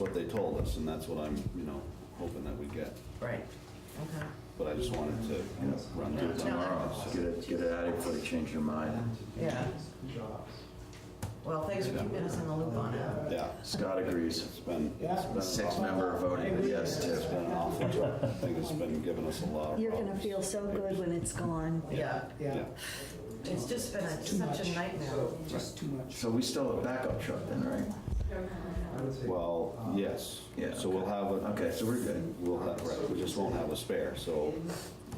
what they told us, and that's what I'm, you know, hoping that we get. Right, okay. But I just wanted to, you know, run through it tomorrow. Get it, get it out of you before you change your mind. Yeah. Well, thanks for keeping us in the loop on it. Yeah, Scott agrees. it's been, it's been. Six-member voting yes, It's too. been an awful job. I think it's been giving us a lot of You're gonna problems. feel so good when it's gone. Yeah, Yeah, it's just been a- Too such a much. nightmare. Just too much. So we still have a backup truck then, right? well, yes. Yeah, So we'll have a. Okay, so we're good. We'll have, right, we just won't have a spare, so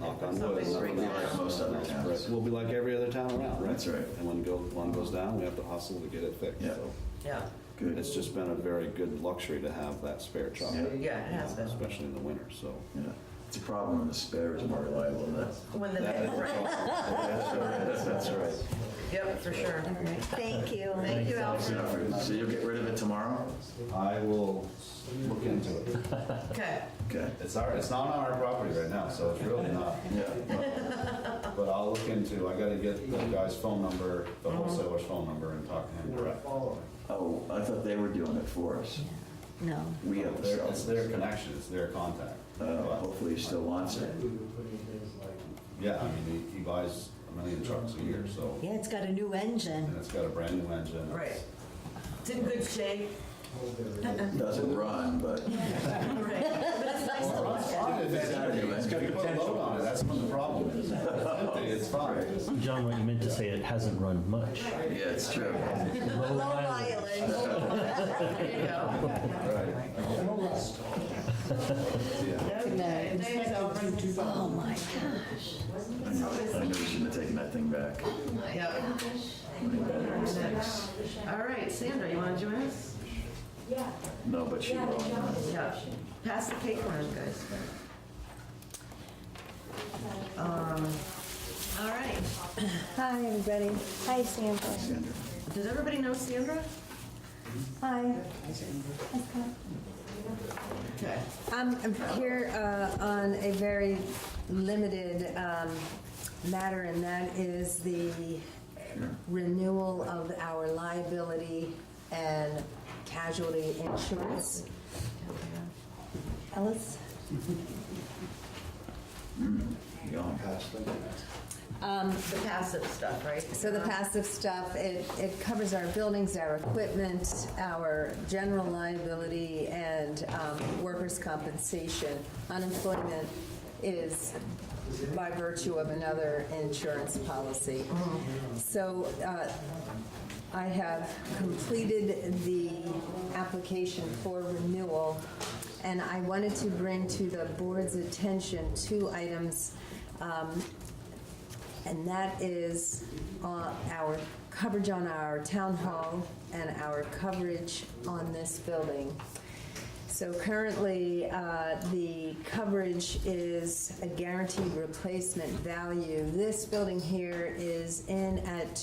knock on wood. Something nothing breaks else. out. Most other Right, towns. We'll be like every other town around, right? That's right. And when go, one goes down, we have to hustle to get it fixed, Yeah. so. Yeah, Good. It's just been a very good luxury to have that spare truck. Yeah. yeah, it has been. Especially in the winter, so. Yeah. It's a problem when the spare is more reliable than that. When the, That- right, That's right. yep, for sure. All right, thank you. Thank you, Thanks, Alfred. Alfred. So you'll get rid of it tomorrow? I will look into it. Okay, Okay. It's our, it's not on our property right now, so it's really not. Yeah. But I'll look into, I gotta get the guy's phone number, the wholesaler's phone number and talk to him direct. Oh, I thought they were doing it for us. No, We have to Their- sell It's it. their connection, it's their contact. Uh, Hopefully he still wants it. Yeah, I mean, he, he buys a million trucks a year, so, yeah, it's got a new and engine. it's got a brand new engine. It's- right. It's in good shape. Doesn't run, but Right. But it's nice Oh, to look at. It's got a load on it, that's what the problem is. It's empty, It's fine. John, what you meant to say, it hasn't rhone much. yeah, it's true. Rhode Island. There you go. Right. No rust. Yeah. Okay, thanks, Alfred. Oh, my God. I know, I know we shouldn't have taken that thing back. Yep. All right, Sandra, you want to join us? No, but she will. Yeah. Pass the cake around, guys. Um. All right. Hi, everybody. Hi, Sandra. Sandra. Does everybody know Sandra? Hi. Okay. I'm I'm here uh, on a very limited um, matter, and that is the renewal of our liability and casualty insurance. Ellis? Yeah. Um, The passive stuff, right? Uh-huh. So the passive stuff, it, it covers our buildings, our equipment, our general liability, and um, workers' compensation. Unemployment is by virtue of another insurance policy. Mm-hmm. So uh, I have completed the application for renewal, and I wanted to bring to the board's attention two items um, and that is uh, our coverage on our town hall and our coverage on this building. So currently, uh, the coverage is a guaranteed replacement value. This building here is in at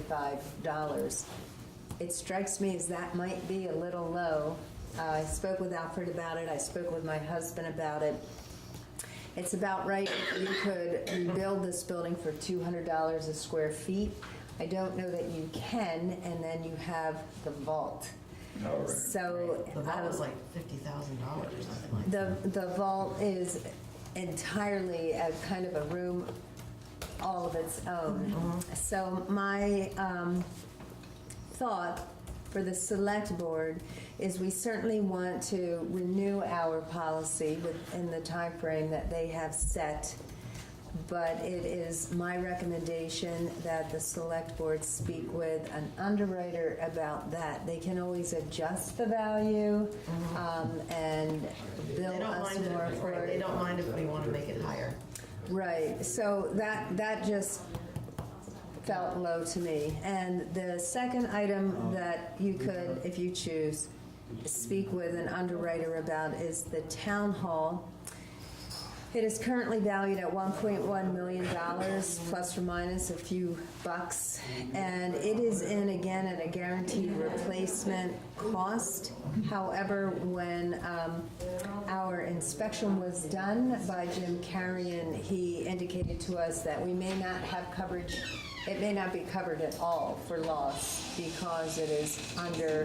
$280,575 it strikes me as that might be a little low. Uh, I spoke with Alfred about it. I spoke with my husband about it. It's about right if you could rebuild this building for $200 a square feet. I don't know that you can, and then you have the vault. All right. So The vault was um, like fifty thousand dollars or something like. that. the, the vault is entirely a kind of a room all of its own. Mm-hmm. So my um, thought for the select board is we certainly want to renew our policy within the time frame that they have set. But it is my recommendation that the select board speak with an underwriter about that. They can always adjust the value um, and Mm-hmm. They bill don't us mind more if, for right, it. they don't mind if we want to make it higher. Right, so that, that just felt low to me. And the second item that you could, if you choose, speak with an underwriter about is the town hall. It is currently valued at $1.1 million, plus or minus a few bucks. And it is in, again, at a guaranteed replacement cost. However, when um, our inspection was done by Jim Carrion, he indicated to us that we may not have coverage, it may not be covered at all for loss because it is under